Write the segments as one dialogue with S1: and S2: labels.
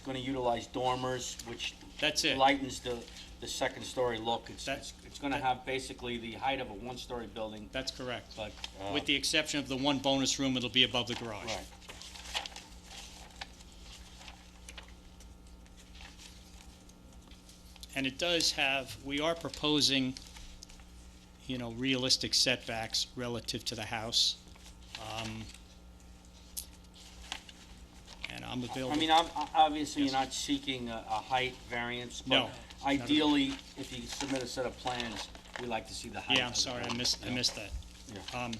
S1: gonna utilize dormers, which
S2: That's it.
S1: lightens the, the second story look. It's,
S2: That-
S1: it's, it's gonna have basically the height of a one-story building,
S2: That's correct.
S1: but, uh,
S2: With the exception of the one bonus room, it'll be above the garage.
S1: right.
S2: And it does have, we are proposing, you know, realistic setbacks relative to the house. Um, And I'm
S1: I mean,
S2: available,
S1: I'm, I- obviously,
S2: Yes.
S1: you're not seeking a, a height variance,
S2: No,
S1: but
S2: not at all.
S1: ideally, if you submit a set of plans, we like to see the height.
S2: yeah,
S1: of
S2: I'm
S1: the
S2: sorry, I
S1: building,
S2: missed, I
S1: yeah.
S2: missed that. Um,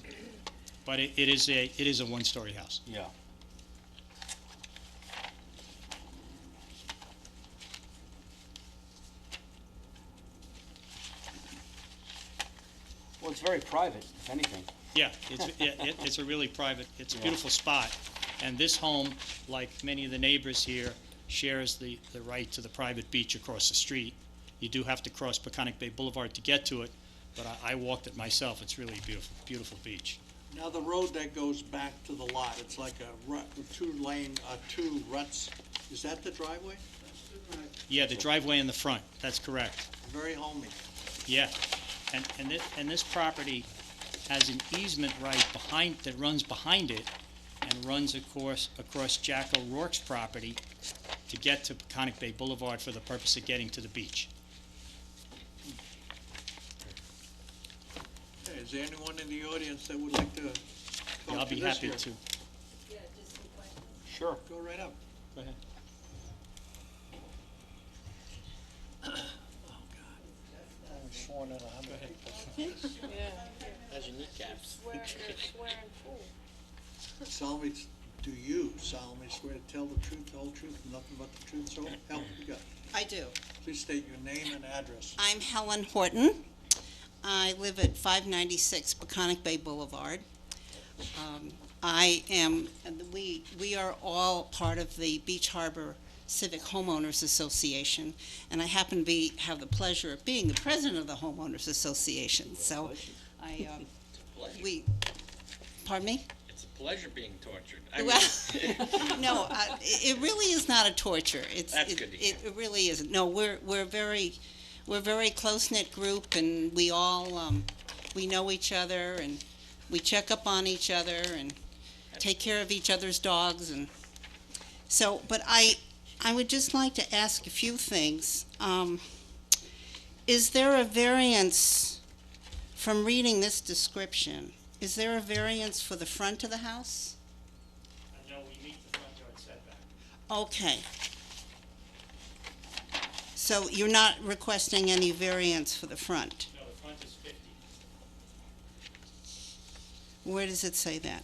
S2: But it it is a, it is a one-story house.
S1: Yeah. Well, it's very private, if anything.
S2: Yeah, it's, it, it- it's a really private, it's a
S1: Yeah.
S2: beautiful spot. And this home, like many of the neighbors here, shares the, the right to the private beach across the street. You do have to cross Peconic Bay Boulevard to get to it, but I, I walked it myself. It's really beautiful, beautiful beach.
S3: Now, the road that goes back to the lot, it's like a rut, two lane, uh, two ruts, is that the driveway?
S2: Yeah, the driveway in the front, that's correct.
S3: Very homey.
S2: Yeah, and, and this, and this property has an easement right behind, that runs behind it and runs of course across Jack O'Rourke's property to get to Peconic Bay Boulevard for the purpose of getting to the beach.
S3: Hey, Is there anyone in the audience that would like to
S2: Yeah, I'll
S3: talk Oh, to
S2: be
S3: this
S2: happy
S3: here?
S2: to.
S4: Yeah, just a question.
S1: Sure.
S3: Go right up.
S2: Go ahead.
S5: sworn in a hundred people. As your kneecaps.
S4: Swear, they're swearing full.
S3: Solemnly, s- do you solemnly swear to tell the truth, the whole truth, and nothing but the truth, so help you God?
S6: I do.
S3: Please state your name and address.
S6: I'm Helen Horton. I live at 596 Peconic Bay Boulevard. Um, I am, and we, we are all part of the Beach Harbor Civic Homeowners Association, and I happen to be, have the pleasure of being the president of the Homeowners Association, so I, um, we, pardon me?
S5: It's a pleasure being tortured.
S6: Well, no, I, it really is not a torture. It's,
S5: That's
S6: it,
S5: good to
S6: it, it really isn't. No, we're we're very we're a very close knit group, and we all um, we know each other, and we check up on each other, and take care of each other's dogs, and so. But I I would just like to ask a few things. Um, is there a variance from reading this description? Is there a variance for the front of the house?
S2: Uh, No, we meet the front yard setback.
S6: Okay. So you're not requesting any variance for the front?
S2: No, the front is fifty.
S6: Where does it say that?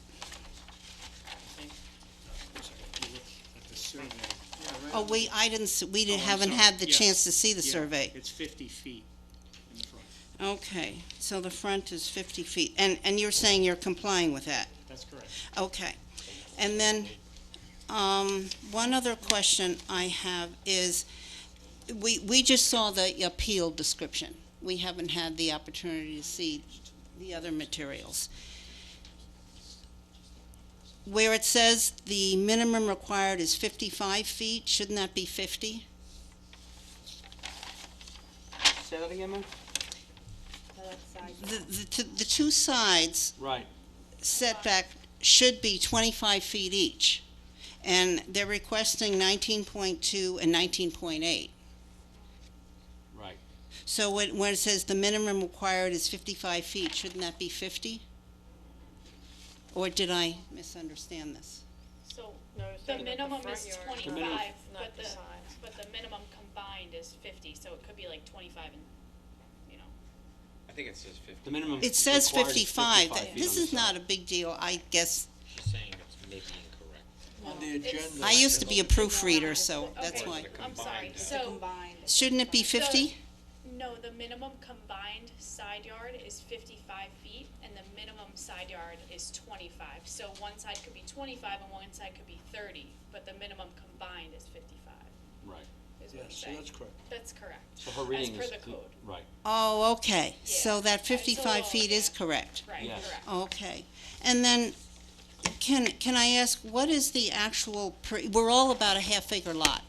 S6: Oh, we, I didn't, s- we didn't-
S2: Oh, I'm
S6: haven't
S2: sorry.
S6: had the
S2: Yeah.
S6: chance to see the survey.
S2: It's fifty feet in the front.
S6: Okay, so the front is 50 feet, and, and you're saying you're complying with that?
S2: That's correct.
S6: Okay. And then, um, one other question I have is, we, we just saw the appeal description. We haven't had the opportunity to see the other materials. Where it says the minimum required is fifty-five feet, shouldn't that be fifty?
S1: Say that again, man?
S6: The, the, t- the two sides
S1: Right.
S6: setback should be 25 feet each, and they're requesting 19.2 and 19.8.
S1: Right.
S6: So when, when it says the minimum required is 55 feet, shouldn't that be 50? Or did I misunderstand this?
S7: So
S4: No, it's
S7: the
S4: not the
S7: minimum
S4: front
S7: is
S4: yard. The minimum-
S7: twenty-five,
S4: Not
S7: but
S4: the
S7: the,
S4: side.
S7: but the minimum combined is fifty, so it could be like twenty-five and, you know.
S5: I think it says fifty.
S1: The minimum.
S6: It says
S1: required is
S6: 55.
S1: 55 feet
S6: This
S1: on
S6: is
S1: the side.
S6: not a big deal, I guess.
S5: She's saying it's maybe incorrect.
S3: On the agenda.
S6: I used to be a proofreader, so
S7: Okay,
S6: that's why.
S7: I'm sorry,
S5: Combined.
S7: so,
S6: Shouldn't it be 50?
S7: no, the minimum combined side yard is fifty-five feet, and the minimum side yard is twenty-five. So one side could be twenty-five and one side could be thirty, but the minimum combined is fifty-five,
S1: Right.
S7: is what
S3: Yes,
S7: it's
S3: so
S7: saying.
S3: that's correct.
S7: That's correct.
S1: So her reading is.
S7: As per the code,
S1: Right.
S6: Oh, okay. So
S7: Yeah.
S6: that
S7: It's
S6: 55
S7: all-
S6: feet is
S7: yeah.
S6: correct.
S7: right,
S1: Yes.
S7: correct.
S6: Okay, and then, can, can I ask, what is the actual, per- we're all about a half acre lot,